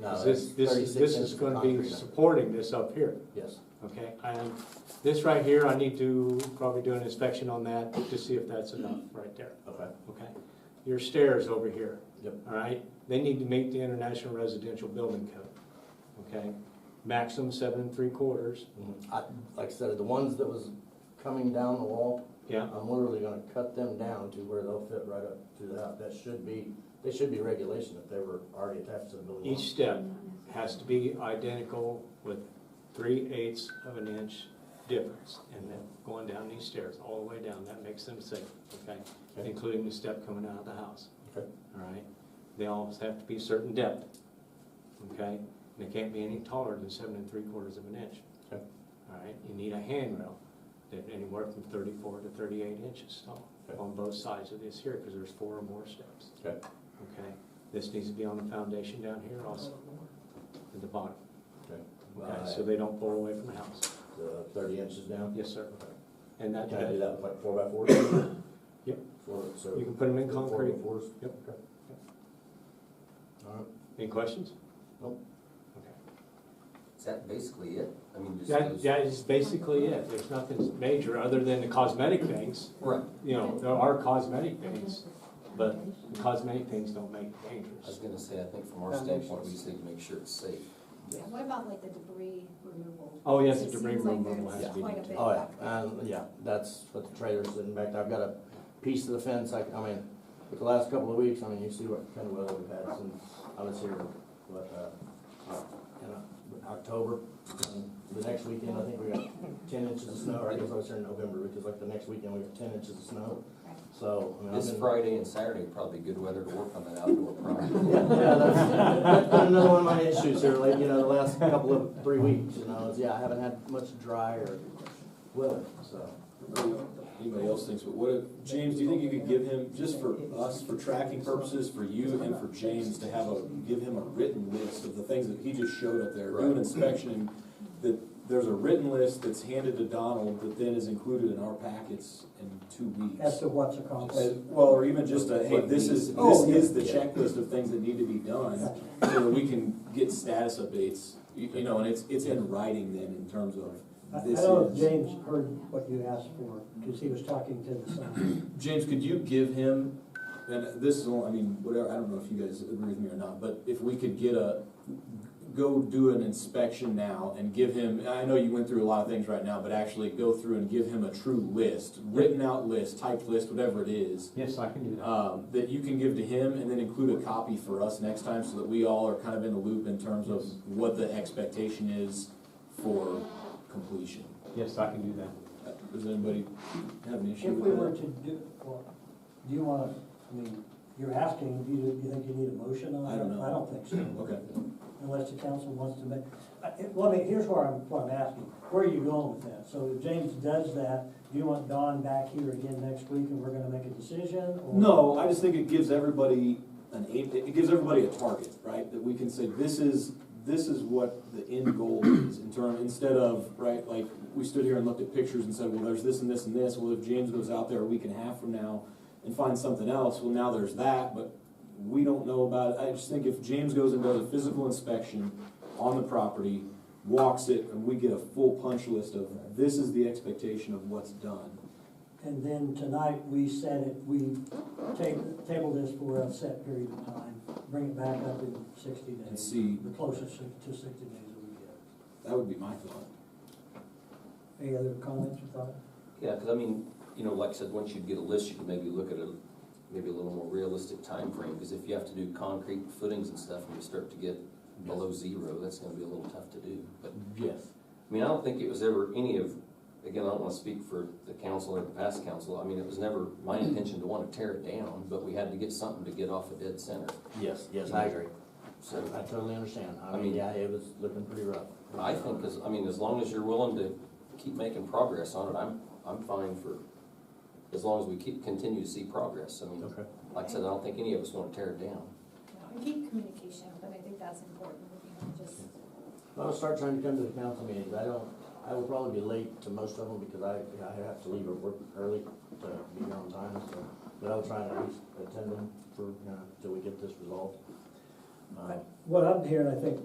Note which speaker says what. Speaker 1: No,
Speaker 2: This,
Speaker 1: that's
Speaker 2: this
Speaker 1: 36
Speaker 2: is, this
Speaker 1: Uh, inches
Speaker 2: is
Speaker 1: of
Speaker 2: gonna
Speaker 1: concrete
Speaker 2: be
Speaker 1: under.
Speaker 2: supporting this up here,
Speaker 1: Yes,
Speaker 2: okay? And this right here, I need to probably do an inspection on that to see if that's enough right there,
Speaker 1: okay,
Speaker 2: okay? Your stairs over here.
Speaker 1: Yep.
Speaker 2: All right, they need to meet the International Residential Building Code, okay? Maximum seven and three quarters,
Speaker 1: Mhm. I, like I said, the ones that was coming down the wall,
Speaker 2: yeah,
Speaker 1: I'm literally gonna cut them down to where they'll fit right up to the house, that should be, they should be regulation if they were already attached to the building.
Speaker 2: Each step has to be identical with three eighths of an inch difference. And then going down these stairs, all the way down, that makes them safe, okay?
Speaker 1: Okay.
Speaker 2: Including the step coming out of the house,
Speaker 1: Okay.
Speaker 2: all right? They always have to be certain depth, okay? And they can't be any taller than seven and three quarters of an inch.
Speaker 1: Okay.
Speaker 2: All right, you need a handrail that anywhere from thirty-four to thirty-eight inches tall
Speaker 1: Okay.
Speaker 2: on both sides of this here, because there's four or more steps.
Speaker 1: Okay.
Speaker 2: Okay, this needs to be on the foundation down here also, at the bottom, okay, so
Speaker 1: By
Speaker 2: they don't pull away from the house.
Speaker 1: the thirty inches down?
Speaker 2: Yes, sir, and that,
Speaker 1: Can I do
Speaker 2: you
Speaker 1: that with like four by fours?
Speaker 2: Yep.
Speaker 1: Four, so.
Speaker 2: can put them in concrete.
Speaker 1: Four by fours?
Speaker 2: Yep.
Speaker 1: Okay. All right,
Speaker 2: Any questions?
Speaker 1: Nope.
Speaker 2: Okay.
Speaker 3: Is that basically it? I mean, just
Speaker 2: That,
Speaker 3: those.
Speaker 2: that is basically it, there's nothing major other than the cosmetic things,
Speaker 3: Right.
Speaker 2: you know, there are cosmetic things, but the cosmetic things don't make it
Speaker 3: I
Speaker 2: dangerous.
Speaker 3: was gonna say, I think from our
Speaker 1: Foundations.
Speaker 3: standpoint, we just need to make sure it's safe.
Speaker 4: Yeah, What about like the debris removal?
Speaker 2: Oh, yes, the
Speaker 4: It
Speaker 2: debris
Speaker 4: seems like
Speaker 2: removal
Speaker 4: there's
Speaker 2: has to be
Speaker 4: quite a
Speaker 2: done.
Speaker 4: bit
Speaker 1: oh,
Speaker 4: back
Speaker 1: yeah,
Speaker 4: there.
Speaker 1: and, yeah, that's what the trailer's sitting back there, I've got a piece of the fence, I, I mean, with the last couple of weeks, I mean, you see what kind of weather we've had since I was here, what, uh, in October. And The next weekend, I think we got ten inches of snow, or I guess I was here in November, because like the next weekend, we got ten inches of snow,
Speaker 4: Right.
Speaker 1: so. I mean, I've
Speaker 3: This
Speaker 1: been-
Speaker 3: Friday and Saturday probably good weather to work on that outdoor project.
Speaker 1: Yeah, yeah, that's, that's been another one of my issues here, like, you know, the last couple of, three weeks, you know, is, yeah, I haven't had much dry or weather, so.
Speaker 5: anybody else thinks, but what if, James, do you think you could give him, just for us, for tracking purposes, for you and for James, to have a, give him a written list of the things that he just showed up there, do an
Speaker 3: Right.
Speaker 5: inspection, and that there's a written list that's handed to Donald that then is included in our packets in two weeks?
Speaker 6: as to what's
Speaker 5: Uh,
Speaker 6: accomplished.
Speaker 5: Well, or even just a, hey, this is, this
Speaker 6: Oh, yeah.
Speaker 5: is the checklist of things that need to be done, so that we can get status updates, you, you know, and it's, it's in writing then in terms
Speaker 6: I I
Speaker 5: of this is.
Speaker 6: don't know if James heard what you asked for, because he was talking to the son.
Speaker 5: James, could you give him, and this is, all- I mean, whatever, I don't know if you guys agree with me or not, but if we could get a, go do an inspection now and give him, I know you went through a lot of things right now, but actually go through and give him a true list, written out list, typed list, whatever it is,
Speaker 2: Yes, I can do that.
Speaker 5: um, that you can give to him and then include a copy for us next time so that we all are kind of in the loop in terms of
Speaker 2: Yes.
Speaker 5: what the expectation is for completion.
Speaker 2: Yes, I can do that.
Speaker 5: Uh, Does anybody have an
Speaker 6: If
Speaker 5: issue with
Speaker 6: we
Speaker 5: that?
Speaker 6: were to do, well, do you want to, I mean, you're asking, do you, do you think you need a motion on it?
Speaker 5: I don't know.
Speaker 6: I don't think so,
Speaker 5: Okay.
Speaker 6: unless the council wants to make, I- it- let me, here's where I'm, what I'm asking, where are you going with that? So if James does that, do you want Don back here again next week and we're gonna make a decision? or-
Speaker 5: No, I just think it gives everybody an aim, it it gives everybody a target, right? That we can say, this is, this is what the end goal is in term, instead of, right, like, we stood here and looked at pictures and said, well, there's this and this and this. Well, if James goes out there a week and a half from now and finds something else, well, now there's that, but we don't know about it. I just think if James goes and does a physical inspection on the property, walks it, and we get a full punch list of, this is the expectation of what's done.
Speaker 6: And then tonight, we set it, we ta- table this for a set period of time, bring it back up in sixty days.
Speaker 5: And see.
Speaker 6: The closest to sixty days that we get.
Speaker 5: That would be my thought.
Speaker 6: Any other comments or thoughts?
Speaker 3: Yeah, because I mean, you know, like I said, once you get a list, you can maybe look at a, maybe a little more realistic time frame. Because if you have to do concrete footings and stuff, and you start to get below zero, that's gonna be a little tough to do. But,
Speaker 1: Yes.
Speaker 3: I mean, I don't think it was ever any of, again, I don't wanna speak for the council or the past council. I mean, it was never my intention to wanna tear it down, but we had to get something to get off a dead center,
Speaker 1: Yes, yes, I agree.
Speaker 3: so.
Speaker 1: I totally understand. I
Speaker 3: I
Speaker 1: mean,
Speaker 3: mean-
Speaker 1: yeah, it was looking pretty rough.
Speaker 3: I think as, I mean, as long as you're willing to keep making progress on it, I'm, I'm fine for, as long as we keep, continue to see progress. I mean,
Speaker 1: Okay.
Speaker 3: like I said, I don't think any of us wanna tear it down.
Speaker 4: And Keep communication, but I think that's important, you know, just,
Speaker 1: I'll start trying to come to the council meetings. I don't, I will probably be late to most of them because I, I have to leave at work early to be here on time, so. But I'll try and at least attend them for, you know, till we get this resolved. Um,
Speaker 6: What I'm hearing, I think